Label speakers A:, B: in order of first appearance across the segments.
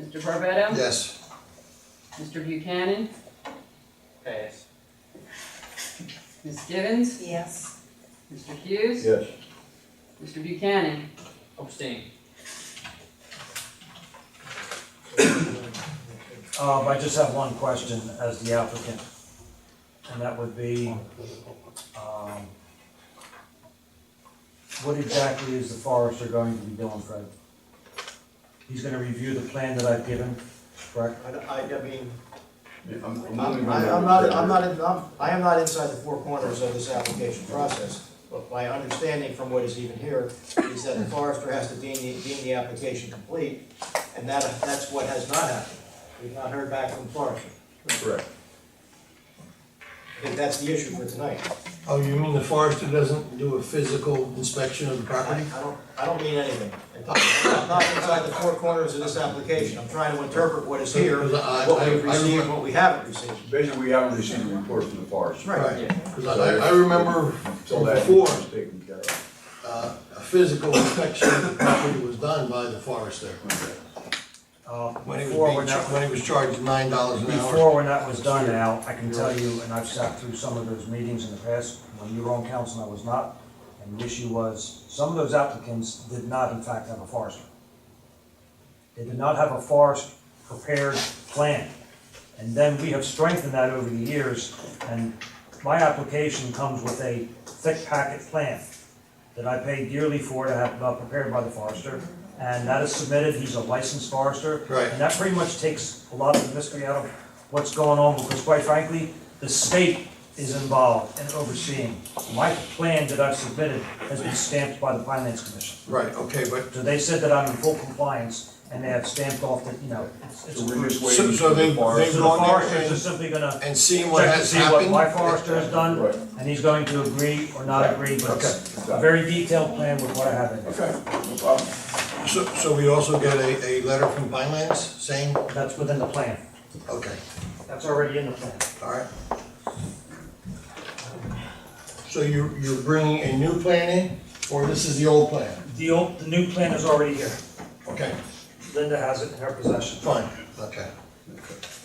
A: Mr. Barbato,
B: Yes.
A: Mr. Buchanan,
C: Pass.
A: Ms. Givens,
D: Yes.
A: Mr. Hughes.
B: Yes.
A: Mr. Buchanan,
C: Abstain.
E: Um, I just have one question as the applicant, and that would be, um, what exactly is the forester going to be doing, Fred? He's gonna review the plan that I've given, correct?
F: I, I, I mean,
B: I'm,
F: I'm I'm not, I'm not, in- I'm, I am not inside the four corners of this application process, but my understanding from what is even here is that the forester has to deem the, deem the application complete, and that, that's what has not happened. We've not heard back from the forester.
B: Correct.
F: I think that's the issue for tonight.
G: Oh, you mean the forester doesn't do a physical inspection of the
F: I
G: property?
F: I don't, I don't mean anything. I'm not I'm not inside the four corners of this application. I'm trying to interpret what is here,
G: I- I-
F: what we've
G: I-
F: received, what we haven't received.
B: Basically, we haven't received a report from the forest.
G: Right,
C: Yeah.
G: because I, I remember
B: So that
G: before,
B: was taken care of.
G: uh, a physical inspection of the property was done by the forester.
E: Uh,
G: When he was
E: before
G: being, char- when he was charged nine dollars an hour.
E: Before when that was done, Al, I can tell you, and I've sat through some of those meetings in the past, when you were on council and I was not, and the issue was, some of those applicants did not in fact have a forester. They did not have a forest prepared plan. And then we have strengthened that over the years, and my application comes with a thick packet plan that I pay dearly for to have uh, prepared by the forester. And that is submitted, he's a licensed forester.
G: Right.
E: And that pretty much takes a lot of the mystery out of what's going on, because quite frankly, the state is involved in overseeing. My plan that I've submitted has been stamped by the finance commission.
G: Right, okay, but,
E: So they said that I'm in full compliance, and they have stamped off that, you know, it's it's
B: So we're
E: approved.
B: just
E: So
B: waiting
G: So- so
B: for the
G: they-
E: the
B: forest.
G: they- Go on there
E: foresters
G: and-
E: are simply gonna
G: and seeing what
E: check to
G: has
E: see what
G: happened,
E: my forester has done,
B: Right.
E: and he's going to agree or not agree, but it's
B: Okay.
E: a very detailed plan with what I have in there.
B: Okay, no problem.
G: so, so we also get a, a letter from Pinelands saying,
E: That's within the plan.
G: okay,
E: That's already in the plan.
G: all right. So you, you're bringing a new plan in, or this is the old plan?
E: The old, the new plan is already here.
G: Okay,
E: Linda has it in her possession.
G: fine, okay.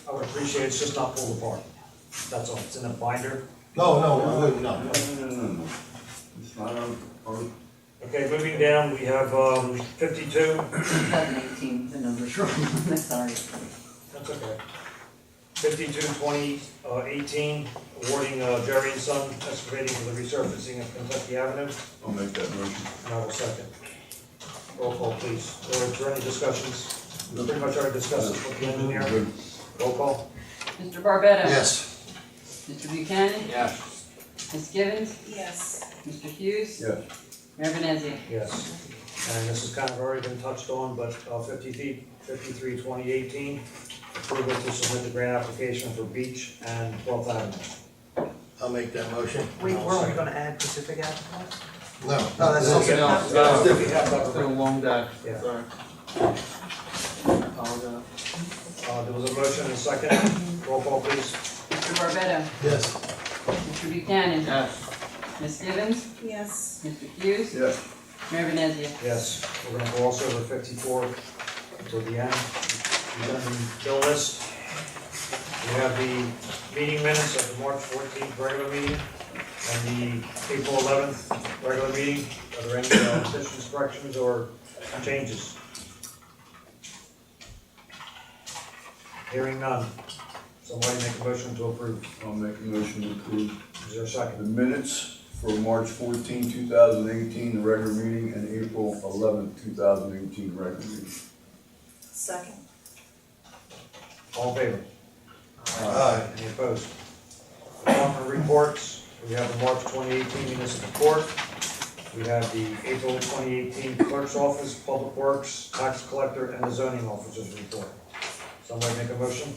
E: I would appreciate it's just not pulled apart. That's all. It's in a binder.
G: No, no, I wouldn't, no.
B: No, no, no, no. It's not on, on-
E: Okay, moving down, we have, um, fifty-two.
D: Eleven eighteen, the number's wrong, I'm sorry.
E: That's okay. Fifty-two twenty, uh, eighteen, awarding uh, Jerry and Son excavating for the resurfacing of Kentucky Avenue,
B: I'll make that motion.
E: and I will second. Roll call, please. Or is there any discussions? We Pretty much already discussed this with the engineer.
B: Good.
E: Roll call?
A: Mr. Barbato,
G: Yes,
A: Mr. Buchanan,
C: Yes.
A: Ms. Givens,
D: Yes.
A: Mr. Hughes.
B: Yes.
A: Mayor Venezia.
E: Yes. And this has kind of already been touched on, but uh, fifty-three, fifty-three twenty eighteen, approval to submit the grant application for Beach and Twelfth Avenue.
G: I'll make that motion.
D: Wait, weren't we gonna add Pacific Avenue?
G: No.
D: No, that's
G: no.
D: okay.
C: else.
E: Yeah,
C: No.
E: we have that.
C: It's been uh, a long day.
E: Yeah.
C: Sorry. Apologize.
E: Uh, There was a motion and a second. Roll call, please.
A: Mr. Barbato,
G: Yes.
A: Mr. Buchanan,
C: Yes.
A: Ms. Givens,
D: Yes.
A: Mr. Hughes,
B: Yes.
A: Mayor Venezia.
E: Yes, we're gonna go also over fifty-four to the end. And then Bill list. We have the meeting minutes of the March fourteenth regular meeting and the April eleventh regular meeting. Are there any uh, additions, corrections, or changes? Hearing none. Somebody make a motion to approve.
B: I'll make a motion to approve
E: Is there a second?
B: The minutes for March 14, 2018, the regular meeting, and April 11, 2018, regular meeting.
D: Second.
E: All in favor?
G: Aye.
E: Any opposed? Department reports, we have the March 2018 municipal court, we have the April 2018 clerk's office, public works, tax collector, and the zoning officers report. Somebody make a motion?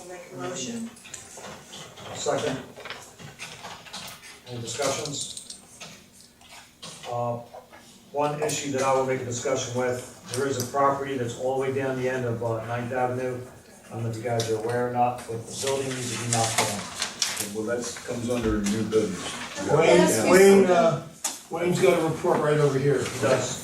D: I'll make a motion.
E: Second. Any discussions? Uh, One issue that I will make a discussion with, there is a property that's all the way down the end of uh, Ninth Avenue. I don't know if you guys are aware or not, but the building needs to be knocked down.
B: Well, that comes under new business.
G: Wayne, Wayne, uh, Wayne's got a report right over here.
E: He does.